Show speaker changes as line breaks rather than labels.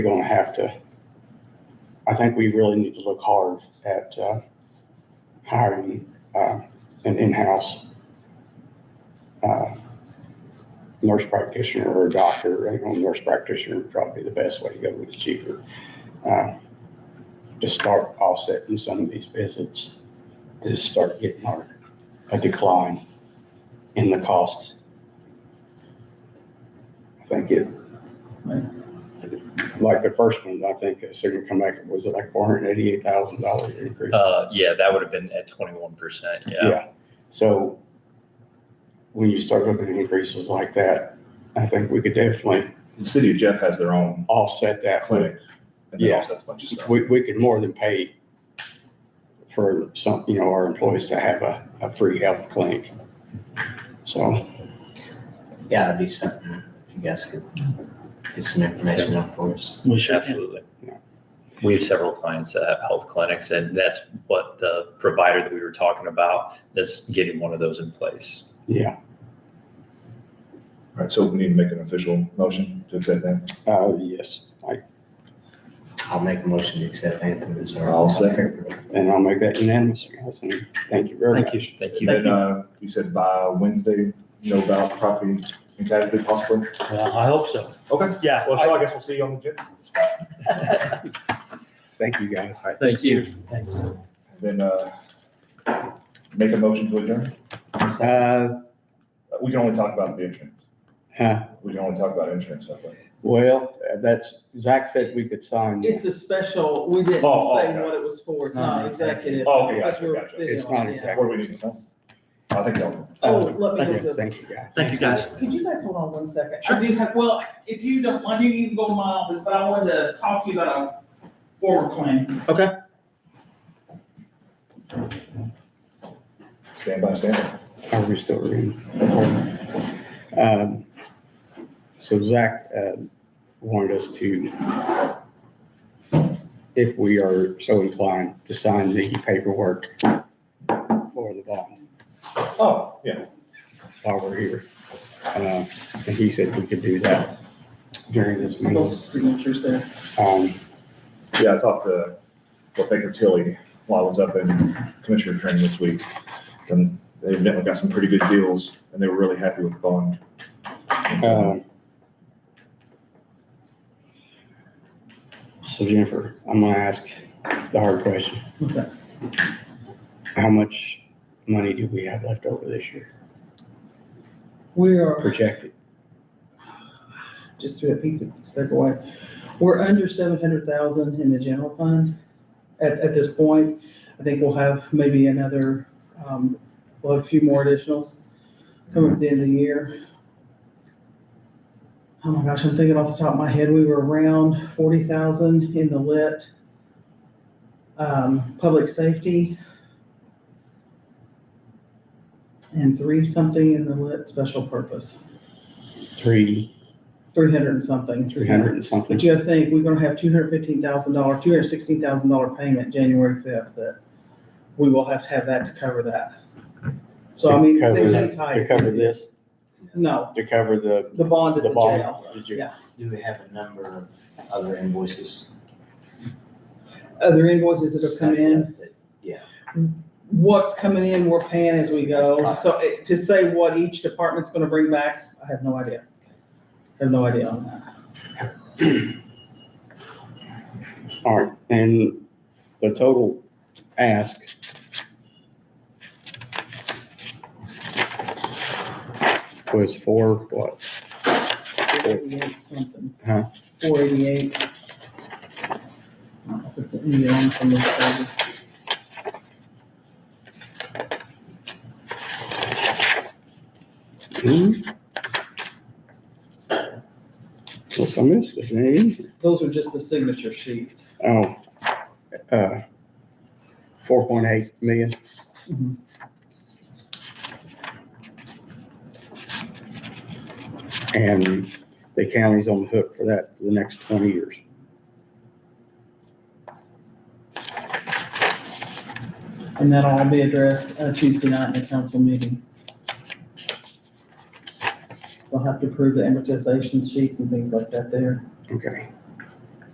we're gonna have to, I think we really need to look hard at, uh, hiring, uh, an in-house, uh, nurse practitioner or a doctor, you know, nurse practitioner would probably be the best way to go, it's cheaper. uh, To start offsetting some of these visits, to start getting our, a decline in the costs. I think it, like the first one, I think it's gonna come back, was it like four hundred and eighty-eight thousand dollars increase?
Uh, yeah, that would have been at twenty-one percent, yeah.
So when you start looking at increases like that, I think we could definitely
The city of Jeff has their own
offset that with,
clinic. and they
Yeah.
offset a bunch of stuff.
we, we could more than pay for some, you know, our employees to have a, a free health clinic. So,
Yeah, it'd be something, if you guys could get some information out for us.
We should. Absolutely.
Yeah.
We have several clients that have health clinics and that's what the provider that we were talking about, that's getting one of those in place.
yeah,
All right, so we need to make an official motion to accept that.
uh, yes, I,
I'll make a motion to accept Anthem as our.
I'll second.
and I'll make that unanimous, guys, and thank you very much.
Thank you. Thank
And
you.
then, uh, you said by Wednesday, you know about property and casualty possibly?
Uh,
Well, I hope so.
Okay.
Yeah.
Well, so I guess we'll see you on the agenda.
Thank you, guys.
Thank you.
Thanks.
Then, uh, make a motion to adjourn.
Uh,
We can only talk about the insurance.
huh,
We can only talk about insurance, I think.
well, uh, that's, Zach said we could sign.
It's a special, we didn't say
Oh, oh, okay.
what it was for, it's not executive.
Oh, okay,
because
gotcha,
we're
gotcha.
video,
It's not
yeah.
executive.
What do we need to sign? I think that,
Oh,
Uh,
let me
yes,
just-
Thank you, guys.
Thank you, guys.
Could you guys hold on one second? I do have, well, if you don't, I didn't even go to my office, but I wanted to talk to you about a forward plan.
stand by, stand by.
Are we still reading? Um, So Zach uh, wanted us to, if we are so inclined, to sign the paperwork for the bond
Oh, yeah.
while we're here. Uh, And he said we could do that during this meeting.
Those signatures there.
Um,
Yeah, I talked to what Baker Tilly while I was up in commissioner training this week. And they evidently got some pretty good deals and they were really happy with the bond. And so-
um, So Jennifer, I'm gonna ask the hard question.
Okay.
How much money do we have left over this year
We're,
projected?
just threw that peek, step away. We're under seven hundred thousand in the general fund at, at this point. I think we'll have maybe another, um, well, a few more additionals coming at the end of the year. Oh my gosh, I'm thinking off the top of my head, we were around forty thousand in the lit, um, public safety. And three something in the lit special purpose,
Three,
three hundred and something.
three hundred and something?
But you gotta think, we're gonna have two hundred fifteen thousand dollar, two hundred sixteen thousand dollar payment January fifth that we will have to have that to cover that. So I mean,
To cover
things
that-
are
To
tight.
cover this,
No,
to cover the,
the bond at
the
the jail.
bond? the jail.
Do we have a number of other invoices?
Other invoices that have come in,
Yeah,
what's coming in, we're paying as we go. So it- to say what each department's gonna bring back, I have no idea. I have no idea on that.
All right, and the total ask. Was for what?
Four eighty-eight something.
Huh.
Four eighty-eight. I don't know if it's in the on from this page.
Hmm? What's I missed, is it easy?
Those are just the signature sheets.
Oh, uh, four point eight million,
Mhm.
and the county's on the hook for that for the next twenty years.
And that'll all be addressed uh, Tuesday night in the council meeting. They'll have to approve the amortization sheets and things like that there.
Okay.